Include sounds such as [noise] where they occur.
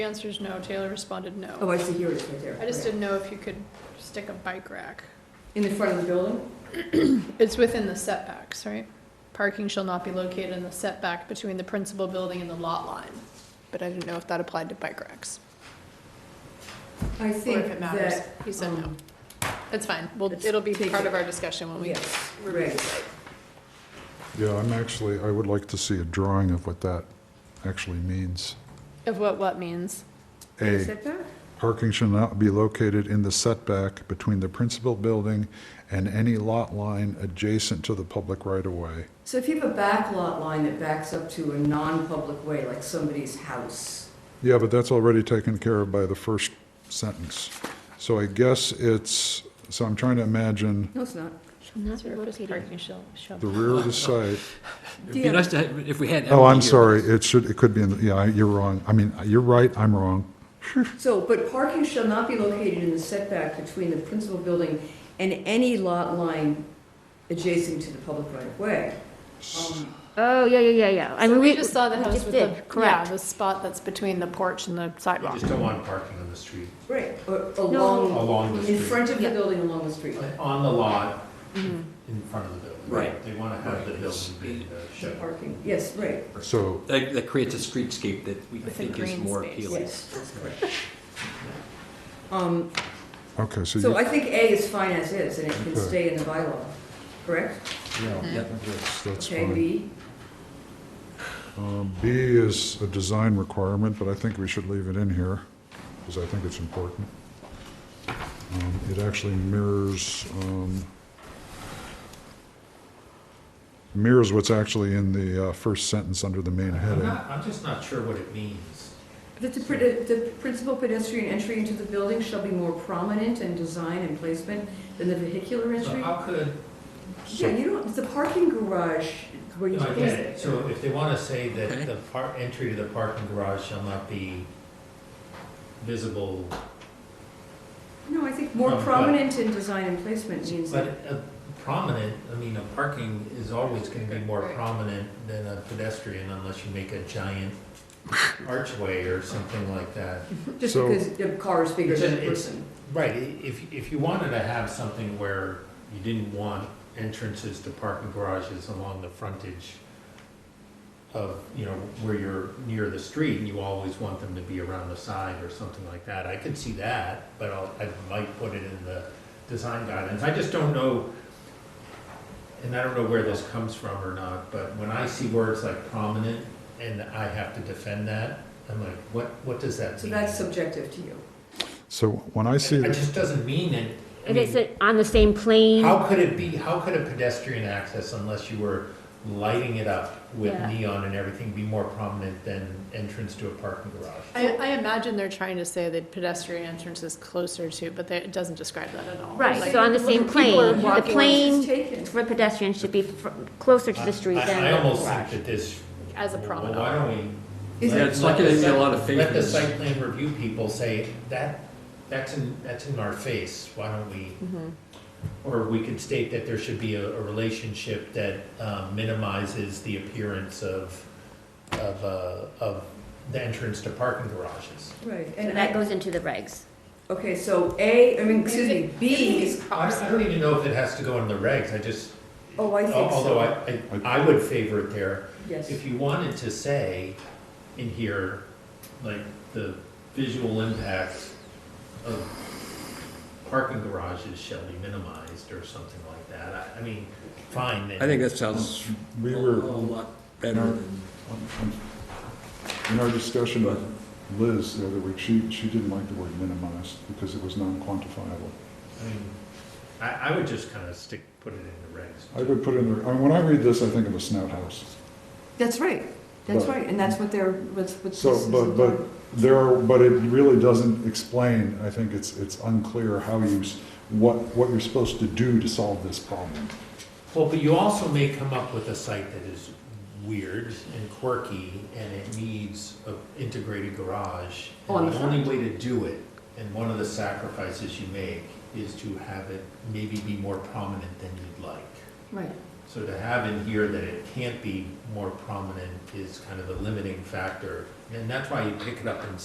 The answer is no. Taylor responded Oh, no. I see, here it is right there. I just Right. didn't know if you could stick a bike rack. In the front of the building? It's within the setbacks, right? Parking shall not be located in the setback between the principal building and the lot line. But I didn't know if that applied to bike racks I or think if it matters. that. He said no. um, It's fine. Well, let's it'll be take part it. of our discussion when we. Oh, Yes, right. Yeah, I'm actually, I would like to see a drawing of what that actually means. Of what what means. A, Setback? parking shall not be located in the setback between the principal building and any lot line adjacent to the public right-of-way. So if you have a back lot line that backs up to a non-public way, like somebody's house, Yeah, but that's already taken care of by the first sentence. So I guess it's, so I'm trying to imagine No, it's not. Surface Parking shall, shall. the rear of the site. Do It'd you be have- nice to, have- if we had. Oh, Emily I'm here. sorry, it should, it could be in, the yeah, you're wrong. I mean, you're right, I'm wrong. So, but parking shall not be located in the setback between the principal building and any lot line adjacent to the public right of way. Um, Oh, yeah, yeah, yeah, yeah. I So mean, we just saw the we house just with the, did, yeah, correct. the spot that's between the porch and the You sidewalk. just don't want parking on the street, Right, or along, along the in street, front of the Yeah. building, along the street. uh, on the lot, Mhm. in front of the building. Right. They want to have the building be uh, The shut. Parking, yes, right, So, That, that creates a streetscape that we With a think is green more space. appealing. yes, that's correct. [laughs] Um, okay, so so you, I think A is fine as is, and it can Okay. stay in the bylaw, correct? yeah, that's, that's Okay, fine. B, Um, B is a design requirement, but I think we should leave it in here, because I think it's important. Um, It actually mirrors, um, mirrors what's actually in the uh, first sentence under the main I'm heading. not, I'm just not sure what it means. that the, pr- the principal pedestrian entry into the building shall be more prominent in design and placement than the vehicular So entry? how could, Yeah, you don't, the parking garage where you. no, I get it, so if they want to say Okay. that the par, entry to the parking garage shall not be visible, No, I think more No, but- prominent in design and placement means but that. a prominent, I mean, a parking is always going to be more prominent than a pedestrian unless you make a giant archway or something like that. Just So- because the car is bigger It's than a- the it's- person. Right, i- if, if you wanted to have something where you didn't want entrances to parking garages along the frontage of, you know, where you're near the street, and you always want them to be around the side or something like that, I could see that, but I'll, I might put it in the design guidelines, I just don't know, and I don't know where this comes from or not, but when I see words like prominent, and I have to defend that, I'm like, what, what does that mean? So that's subjective to you. So when I see, It just doesn't mean it. I If it's mean, uh, on the same plane, How could it be, how could a pedestrian access unless you were lighting it up with Yeah. neon and everything be more prominent than entrance to a parking garage? I, I imagine they're trying to say that pedestrian entrance is closer to, but they- it doesn't describe that at all. right, Like, so on the same people are plane, the walking- It's plane taken. for pedestrians should be fr- closer to the street I- than I the almost think garage. that this. As a promenade. Well, why don't we? Is Yeah, let- it's let not gonna the be a site- lot of Let the favors. site plan review people say, that, that's in, that's in our face, why don't we? Mm-hmm. Or we could state that there should be a, a relationship that um, minimizes the appearance of, of, uh, of the entrance to parking garages. Right, So and That I, goes into the regs. okay, so A, I mean, excuse me, B is, I I don't even know if it has to go in the regs, I just, oh, I think so. although I, I I would favor it there. Yes, If you wanted to say in here, like, the visual impact of parking garages shall be minimized or something like that, I, I mean, fine, then. I think that sounds a we were, lot better than. in our discussion with Liz the other week, she, she didn't like the word minimized because it was non-quantifiable. I mean, I, I would just kind of stick, put it in the regs. I would put in, there- I mean, when I read this, I think of a snout house. that's right, that's But- right, and that's what they're, what's, what's. So, but, but there are, but it really doesn't explain, I think it's, it's unclear how you, s- what, what you're supposed to do to solve this problem. Well, but you also may come up with a site that is weird and quirky, and it needs an integrated garage. On And the the only way to do it, and one of the sacrifices you make, is to have it maybe be more prominent than you'd like. Right, So to have in here that it can't be more prominent is kind of a limiting factor, and that's why you pick it up in